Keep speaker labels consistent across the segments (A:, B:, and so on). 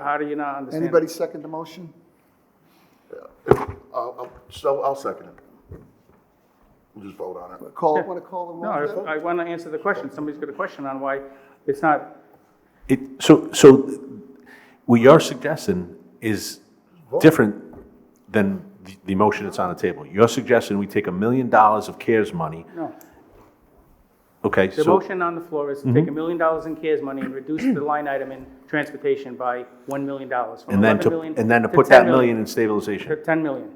A: how do you not understand? it?
B: Anybody second the motion?
C: I'll, I'll, so I'll second it. We'll just vote on it.
B: Call, want to call the
A: No,
B: roll?
A: I- I want to answer the question. Somebody's got a question on why it's not,
D: It, so, so what you're suggesting is different than the, the motion that's on the table. You're suggesting we take a million dollars of CARES money,
A: no.
D: okay?
A: The
D: So Mm-hmm.
A: motion on the floor is to take a million dollars in CARES money and reduce the line item in transportation by $1 million. from
D: And then
A: 11
D: to,
A: million
D: and then to put that
A: 10
D: million in
A: To
D: stabilization,
A: 10 million.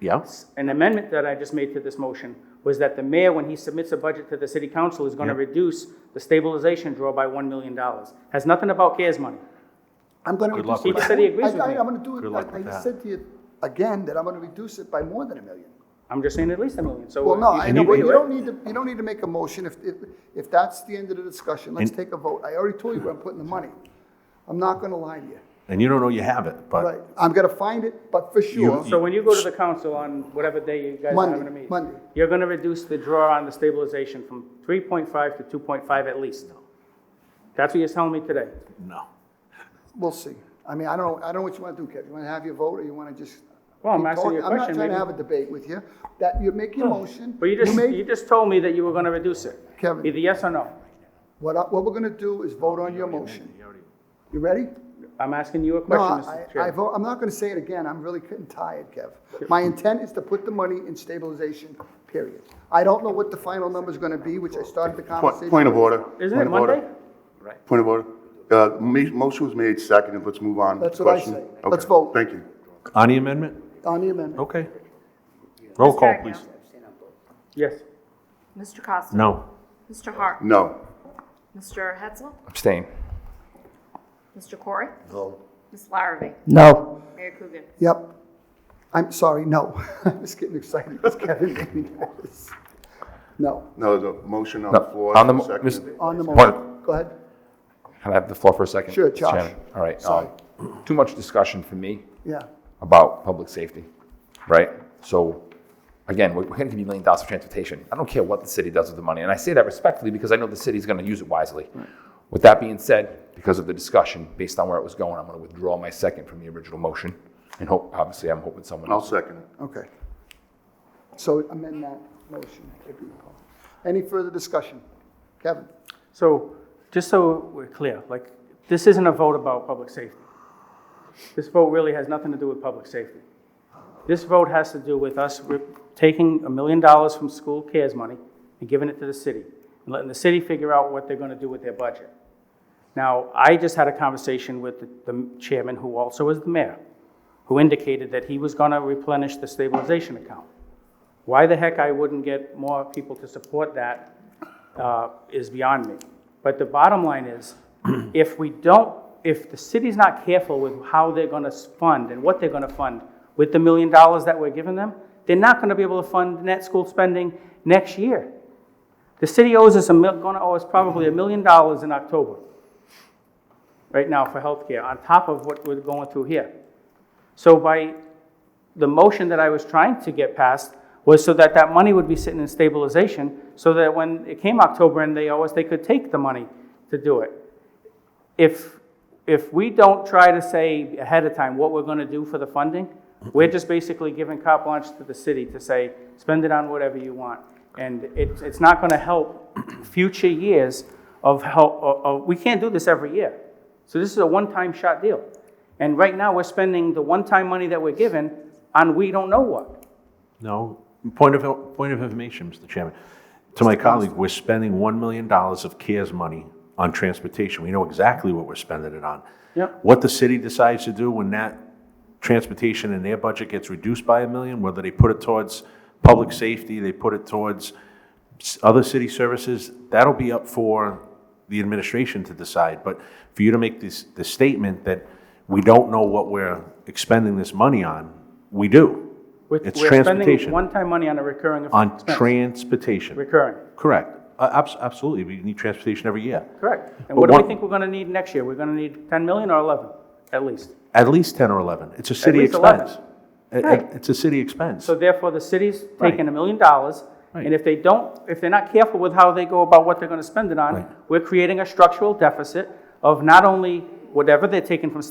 D: yeah?
A: An amendment that I just made to this motion was that the mayor, when he submits a budget to the city council, is going to reduce the stabilization draw by $1 million. Has nothing about CARES money.
B: I'm going to.
D: Good luck
A: He just said he agrees with
B: I,
A: me.
B: am going to do
D: Good
B: it,
D: luck with
B: I- I
D: that.
B: said to you again that I'm going to reduce it by more than a million.
A: I'm just saying at least a million, so.
B: Well, no,
A: you
B: I
A: can
B: know,
A: do
B: but
A: it.
B: you don't need to, you don't need to make a motion if, if, if that's the end of the discussion, let's take a vote. I already told you where I'm putting the money. I'm not going to lie to you,
D: And you don't know you have it,
B: right?
D: but
B: I'm going to find it, but for sure.
A: So when you go to the council on whatever day you guys are
B: Monday,
A: having a meeting.
B: Monday.
A: You're gonna reduce the draw on the stabilization from three point five to two point five at least. That's what you're telling me today.
D: no.
B: We'll see. I mean, I don't, I don't know what you want to do, Kev. You want to have your vote, or you want to just?
A: Well, I'm
B: keep
A: asking
B: talking?
A: you a
B: I'm
A: question,
B: not trying to
A: maybe-
B: have a debate with you. That, you make your motion.
A: But you just,
B: made-
A: you just told me that you were gonna reduce it.
B: Kevin.
A: Either yes or no.
B: What, I- what we're going to do is vote on your motion. You ready?
A: I'm asking you a
B: No,
A: question,
B: I,
A: Mr.
B: I
A: Chair.
B: vote, I'm not going to say it again. I'm really getting tired, Kev. My intent is to put the money in stabilization, period. I don't know what the final number's going to be, which I started the
C: Point,
B: conversation.
C: point of order.
A: Isn't it
C: Point of order.
A: Monday?
C: Point of order. Uh, ma- motion was made, seconded, let's move on.
B: That's what I
C: Question.
B: say.
C: Okay,
B: Let's vote.
C: Thank you.
D: On the amendment?
B: On the amendment.
D: Okay. Roll call,
E: Mr.
D: please.
E: Agia.
A: Yes.
E: Mr. Costa.
D: No.
E: Mr. Hart.
C: No.
E: Mr. Hetzel.
F: Abstain.
E: Mr. Corey. No. Ms. Larrabee.
B: No.
E: Mayor Coogan.
B: Yep. I'm sorry, no. I'm just getting excited because Kevin made me nervous. No,
C: No, there's a motion on the
F: No,
C: floor.
F: on the, mo-
C: seconded.
F: Ms.
B: on the
F: Point.
B: motion. Go ahead.
F: Can I have the floor for a second?
B: Sure,
F: Mr.
B: Josh.
F: Chairman? All right.
B: Sorry.
F: um, Too much discussion for me
B: Yeah.
F: about public safety, right? So, again, we're going to give you million dollars for transportation. I don't care what the city does with the money, and I say that respectfully because I know the city's going to use it wisely. With that being said, because of the discussion, based on where it was going, I'm going to withdraw my second from the original motion, and hope, obviously, I'm hoping someone
C: I'll
F: else.
C: second it.
B: Okay. So amend that motion. if you will. Any further discussion? Kevin?
A: So, just so we're clear, like, this isn't a vote about public safety. This vote really has nothing to do with public safety. This vote has to do with us re- taking a million dollars from school cares money and giving it to the city, and letting the city figure out what they're gonna do with their budget. Now, I just had a conversation with the- the chairman, who also is the mayor, who indicated that he was gonna replenish the stabilization account. Why the heck I wouldn't get more people to support that uh, is beyond me. But the bottom line is, if we don't, if the city's not careful with how they're gonna fund and what they're gonna fund with the million dollars that we're giving them, they're not gonna be able to fund net school spending next year. The city owes us a mil, gonna owe us probably a million dollars in October, right now for healthcare, on top of what we're going through here. So by the motion that I was trying to get passed was so that that money would be sitting in stabilization, so that when it came October and they owe us, they could take the money to do it. If, if we don't try to say ahead of time what we're gonna do for the funding, we're just basically giving carte blanche to the city to say, spend it on whatever you want. And it, it's not gonna help future years of help, of, of- we can't do this every year. So this is a one-time shot deal. And right now, we're spending the one-time money that we're given on we don't know what.
D: No. Point of, point of information, Mr. Chairman. To my colleague, we're spending $1 million of CARES money on transportation. We know exactly what we're spending it on.
A: Yep.
D: What the city decides to do when that transportation and their budget gets reduced by a million, whether they put it towards public safety, they put it towards s- other city services, that'll be up for the administration to decide. But for you to make this, the statement that we don't know what we're expending this money on, we do.
A: We're-
D: It's
A: We're spending
D: transportation.
A: one-time money on a recurring
D: On
A: expense.
D: transportation.
A: Recurring,
D: Correct. Uh, abs- Absolutely. We need transportation every year.
A: correct.
D: But
A: And what do we
D: one-
A: think we're gonna need next year? We're gonna need 10 million or 11, at least.
D: At least 10 or 11. It's a city
A: least 11.
D: expense. It-
A: Right.
D: it- It's a city expense.
A: So therefore, the city's
D: Right.
A: taking a million dollars, and
D: Right.
A: if they don't, if they're not careful with how they go about what they're gonna spend it
D: Right.
A: on, we're creating a structural deficit of not only whatever they're taking from